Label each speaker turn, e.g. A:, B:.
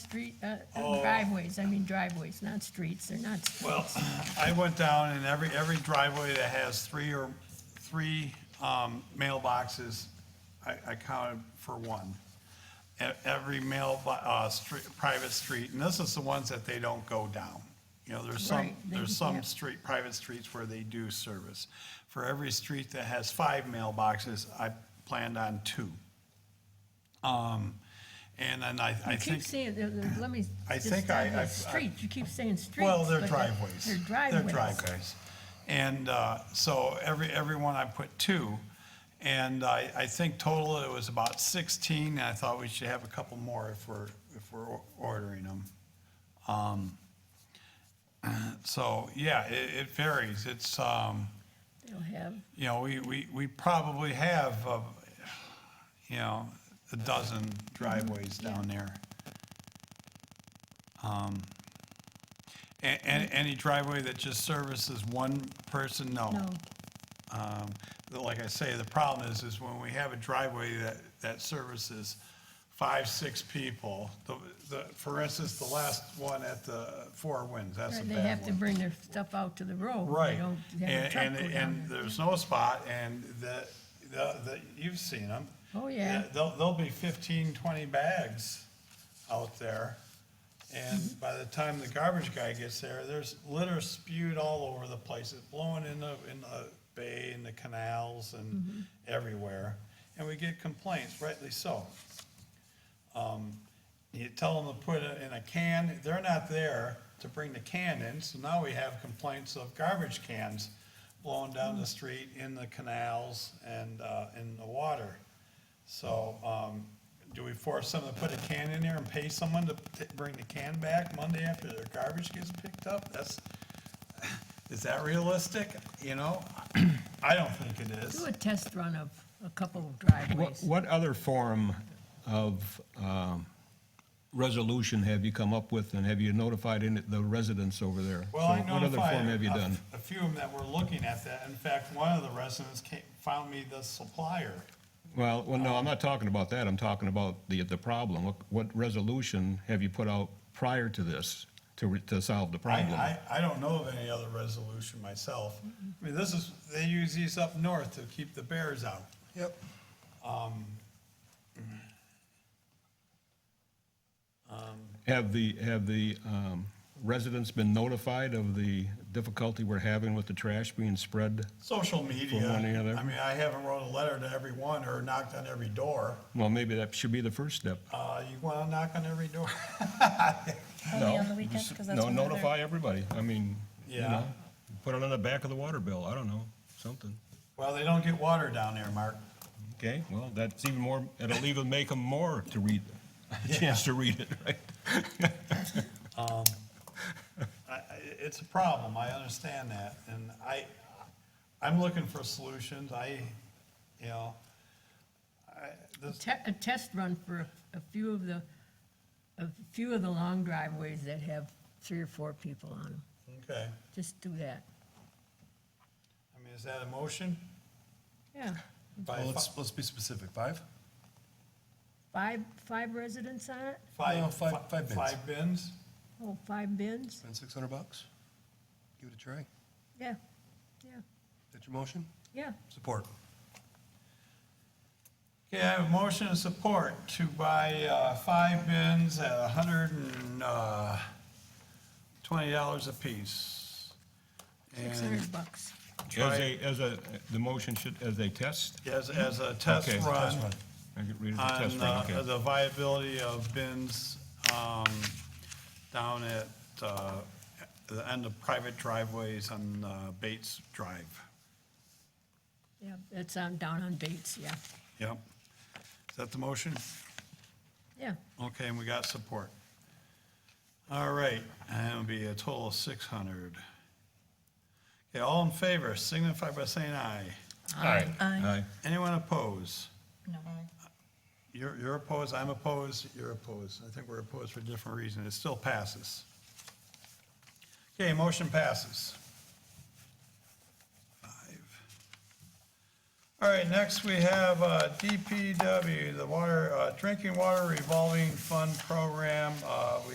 A: street, uh, driveways, I mean driveways, not streets, they're not, s-
B: Oh. Well, I went down and every, every driveway that has three or, three um, mailboxes, I, I counted for one. E- Every mail, uh, street, private street, and this is the ones that they don't go down. You know, there's some,
A: Right, they-
B: there's some
A: yeah.
B: street, private streets where they do service. For every street that has five mailboxes, I planned on two. Um, And then I, I
A: you keep
B: think,
A: saying, they're- they're- let me.
B: I
A: just
B: think
A: stop
B: I-
A: you.
B: I've- I've-
A: Streets, you keep saying streets.
B: well, they're
A: but
B: driveways.
A: They're driveways.
B: They're driveways. And uh, so every, every one I put two. And I, I think total it was about 16. And I thought we should have a couple more if we're, if we're ordering them. Um, So, yeah, it, it varies. It's, um,
A: They'll have,
B: you know, we, we, we probably have, uh, you know, a dozen driveways down there. And,
A: Mm-hmm.
B: and any driveway that just services one person, no.
A: no,
B: Um, but Like I say, the problem is, is when we have a driveway that, that services five, six people, the, the, for instance, the last one at the Four Winds, that's a
A: Right,
B: bad
A: they
B: one.
A: have to bring their stuff out to the road. Oh, They
B: Right,
A: don't have a
B: and,
A: truck
B: and,
A: go down
B: and
A: there.
B: there's no spot, and the, the, the, you've seen them.
A: Oh, yeah.
B: There'll, there'll be fifteen, twenty bags out there, and by the time the garbage guy gets there, there's litter spewed all over the place, it's blowing in the, in the bay, in the canals,
A: Mm-hmm.
B: and everywhere, and we get complaints, rightly so. You tell them to put it in a can, they're not there to bring the can in, so now we have complaints of garbage cans blowing down the street in the canals and, uh, in the water. So, um, do we force someone to put a can in there and pay someone to t- bring the can back Monday after their garbage gets picked up? That's, is that realistic, you know? I don't think it is.
A: Do a test run of a couple of
C: What,
A: driveways.
C: what other form of um, resolution have you come up with, and have you notified any, the residents over there?
B: Well, I
C: So What other form
B: notified
C: have you
B: a-
C: done?
B: A few of them that were looking at that. In fact, one of the residents came, found me the supplier.
C: Well, well,
B: um,
C: no, I'm not talking about that, I'm talking about the, the problem. What- What resolution have you put out prior to this to, re- to solve the
B: I,
C: problem?
B: I, I don't know of any other resolution myself. I mean, this is, they use these up north to keep the bears out.
D: Yep.
C: Have the, have the um, residents been notified of the difficulty we're having with the trash being spread?
B: Social media.
C: one or the other.
B: I mean, I haven't wrote a letter to everyone or knocked on every door.
C: Well, maybe that should be the first step.
B: Uh, you wanna knock on every door?
C: No,
E: Only on the weekends,
C: just-
E: 'cause that's when
C: No,
E: they're-
C: notify everybody, I mean, you
B: Yeah.
C: know, put it on the back of the water bill, I don't know, something.
B: Well, they don't get water down there, Mark.
C: Okay, well, that's even more, it'll even make them more to read, a chance to read it, right?
B: I, I- it's a problem, I understand that, and I, I'm looking for solutions, I, you know, I, this,
A: Te- A test run for a- a few of the, a few of the long driveways that have three or four people on them.
B: okay,
A: Just do that.
B: I mean, is that a motion?
A: Yeah,
B: By
D: Well,
B: fi-
D: let's, let's be specific. Five?
A: five, five residents on it?
D: No,
B: Five,
D: five-
B: fi-
D: five bins.
B: Five bins?
A: Oh, five bins?
D: Spend six hundred bucks? Give it a try.
A: Yeah, yeah,
D: That's your motion?
A: yeah.
D: Support.
B: Okay, I have a motion and support to buy, uh, five bins at a hundred and, uh, twenty dollars apiece.
A: Six
B: And
A: hundred bucks.
B: Try-
C: As a, as a, the motion should, as a test,
B: as, as
D: Mm-hmm.
B: a test
C: Okay, test
B: run
D: run.
C: I could read it as a test,
B: on
C: right,
B: uh,
C: okay.
B: the viability of bins, um, down at, uh, the end of private driveways on, uh, Bates Drive.
A: Yeah, that's on, down on Bates, yeah,
B: Yep. Is that the motion?
A: yeah.
B: Okay, and we got support. All right, and it'll be a total of six hundred. Okay, all in favor, signify by saying aye.
C: Aye.
B: Anyone oppose?
E: No.
B: You're, you're opposed, I'm opposed, you're opposed. I think we're opposed for a different reason. It still passes. Okay, motion passes. Five. All right, next we have uh, DPW, the water, uh, drinking water revolving fund program. Uh, We